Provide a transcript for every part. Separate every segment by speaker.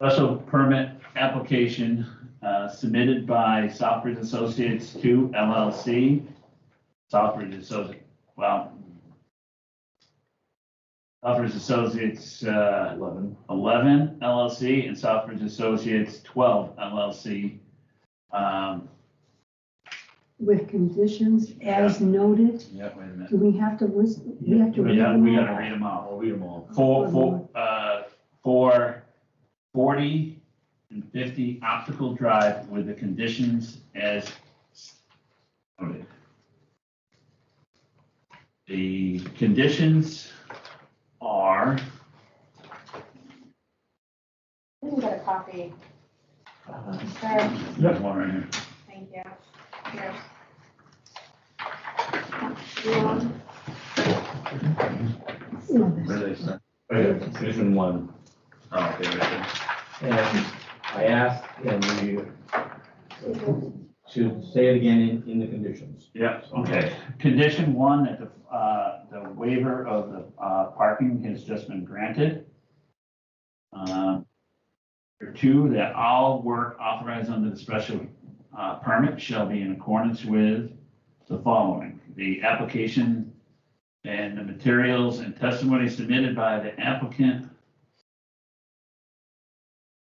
Speaker 1: Special permit application uh, submitted by Southbridge Associates to LLC. Southbridge Associates, wow. Southbridge Associates uh,
Speaker 2: Eleven.
Speaker 1: 11 LLC and Southbridge Associates 12 LLC. Um,
Speaker 3: with conditions as noted.
Speaker 1: Yeah, wait a minute.
Speaker 3: Do we have to list, we have to read
Speaker 1: Yeah, we
Speaker 3: them
Speaker 1: gotta
Speaker 3: all?
Speaker 1: read them out.
Speaker 2: I'll read them all.
Speaker 1: For, for, uh, for forty and fifty optical drive with the conditions as noted. The conditions are,
Speaker 4: We can get a copy.
Speaker 2: Uh,
Speaker 4: Sure,
Speaker 1: there's one right here.
Speaker 4: thank you. Here. Yeah.
Speaker 3: Yeah, that's-
Speaker 2: Where they start? Right here, Condition one.
Speaker 1: Oh, okay, right there.
Speaker 2: And I asked, and we, to say it again in, in the conditions.
Speaker 1: Yep, okay. Condition one, that the, uh, the waiver of the, uh, parking has just been granted. Um, Number two, that all work authorized under the special, uh, permit shall be in accordance with the following. The application and the materials and testimony submitted by the applicant.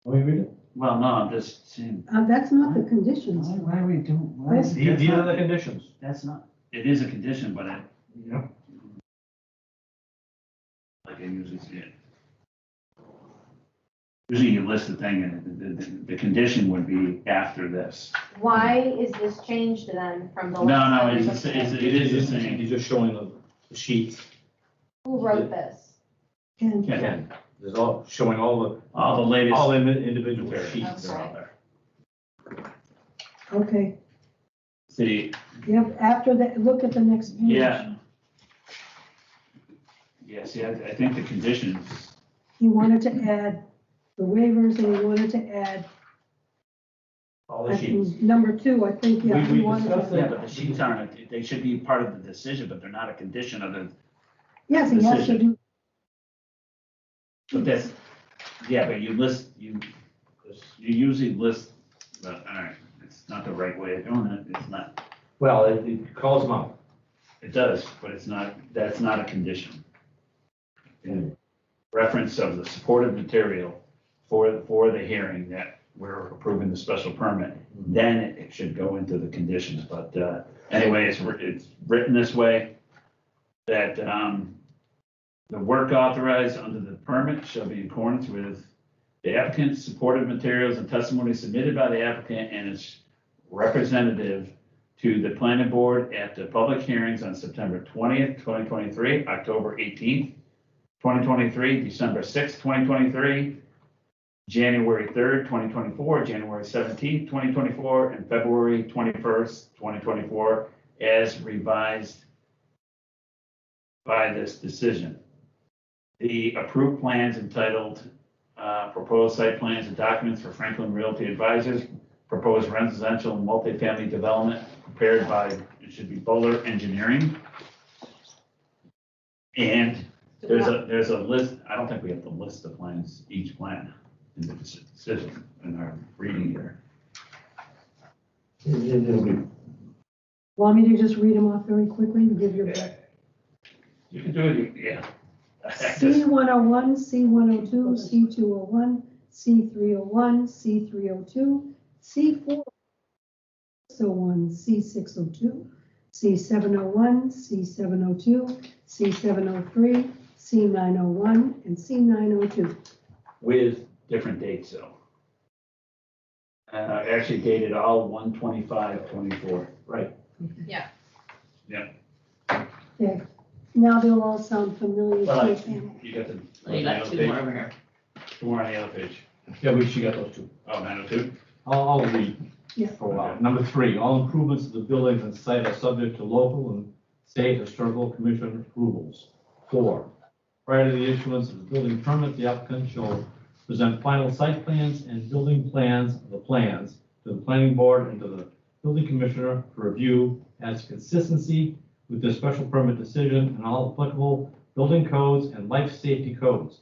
Speaker 2: Let me Oh, read it.
Speaker 1: Well, no, I'm just saying,
Speaker 3: Uh, that's not the conditions.
Speaker 1: why, why are we doing? why
Speaker 3: That's-
Speaker 1: is-
Speaker 2: These, these are the conditions.
Speaker 1: That's not, it is a condition, but it,
Speaker 2: Yeah.
Speaker 1: like I usually see it. Usually you list the thing and the, the, the condition would be after this.
Speaker 4: Why is this changed then from the?
Speaker 1: No,
Speaker 4: last
Speaker 1: no,
Speaker 4: time we
Speaker 1: it's,
Speaker 4: looked
Speaker 1: the sa-
Speaker 4: at
Speaker 1: it's,
Speaker 4: it?
Speaker 1: it is the same.
Speaker 2: You're just showing the the sheets.
Speaker 4: Who wrote this?
Speaker 3: And
Speaker 1: Yeah.
Speaker 2: Again, there's all, showing all
Speaker 1: All the
Speaker 2: the,
Speaker 1: latest.
Speaker 2: all the individual
Speaker 1: materials
Speaker 2: sheets.
Speaker 1: are out there.
Speaker 3: Okay,
Speaker 1: See,
Speaker 3: yep, after that, look at the next page.
Speaker 1: Yeah. yeah, see, I, I think the conditions,
Speaker 3: He wanted to add the waivers and he wanted to add,
Speaker 2: All
Speaker 3: I
Speaker 2: the sheets.
Speaker 3: think, number two, I think, yeah.
Speaker 2: We- we
Speaker 3: he wanted to-
Speaker 2: discussed
Speaker 1: yeah, but the sheets aren't, they should be part of the decision, but they're not a condition of the,
Speaker 3: Yes, he has to do,
Speaker 1: but that's, yeah, but you list, you, you usually list, but, all right, it's not the right way of doing it, it's not.
Speaker 2: Well, it- it calls them out.
Speaker 1: It does, but it's not, that's not a condition. In reference of the supportive material for, for the hearing that we're approving the special permit, then it should go into the conditions, but, uh, anyway, it's, writ- it's written this way that, um, the work authorized under the permit shall be in accordance with the applicant's supportive materials and testimony submitted by the applicant and its representative to the planning board at the public hearings on September twentieth, twenty twenty-three, October eighteenth, twenty twenty-three, December sixth, twenty twenty-three, January third, twenty twenty-four, January seventeenth, twenty twenty-four, and February twenty-first, twenty twenty-four, as revised by this decision. The approved plans entitled, uh, proposed site plans and documents for Franklin Realty Advisors, proposed residential and multifamily development prepared by, it should be Bowler Engineering. And there's a, there's a list, I don't think we have to list the plans, each plan in the decision in our reading here.
Speaker 2: It- it- it'll be-
Speaker 3: want me to just read them off very quickly and give your back?
Speaker 1: You can do it, yeah.
Speaker 3: C one oh one, C one oh two, C two oh one, C three oh one, C three oh two, C four. Six oh one, C six oh two, C seven oh one, C seven oh two, C seven oh three, C nine oh one, and C nine oh two.
Speaker 1: With different dates though. Uh, actually dated all 125, 24.
Speaker 2: Right.
Speaker 3: Okay, now they'll all sound familiar.
Speaker 1: Well,
Speaker 3: to you.
Speaker 1: You got the.
Speaker 5: You got two more over here.
Speaker 1: Two more on the other page.
Speaker 2: Yeah, we, she got those two.
Speaker 1: Oh, 902?
Speaker 2: I'll, I'll read
Speaker 3: Yeah.
Speaker 2: for a while. Number three, all improvements to the buildings and site are subject to local and state historical commission approvals. Four, prior to the issuance of the building permit, the applicant shall present final site plans and building plans, of the plans, to the planning board and to the building commissioner for review as consistency with the special permit decision and all applicable building codes and life safety codes.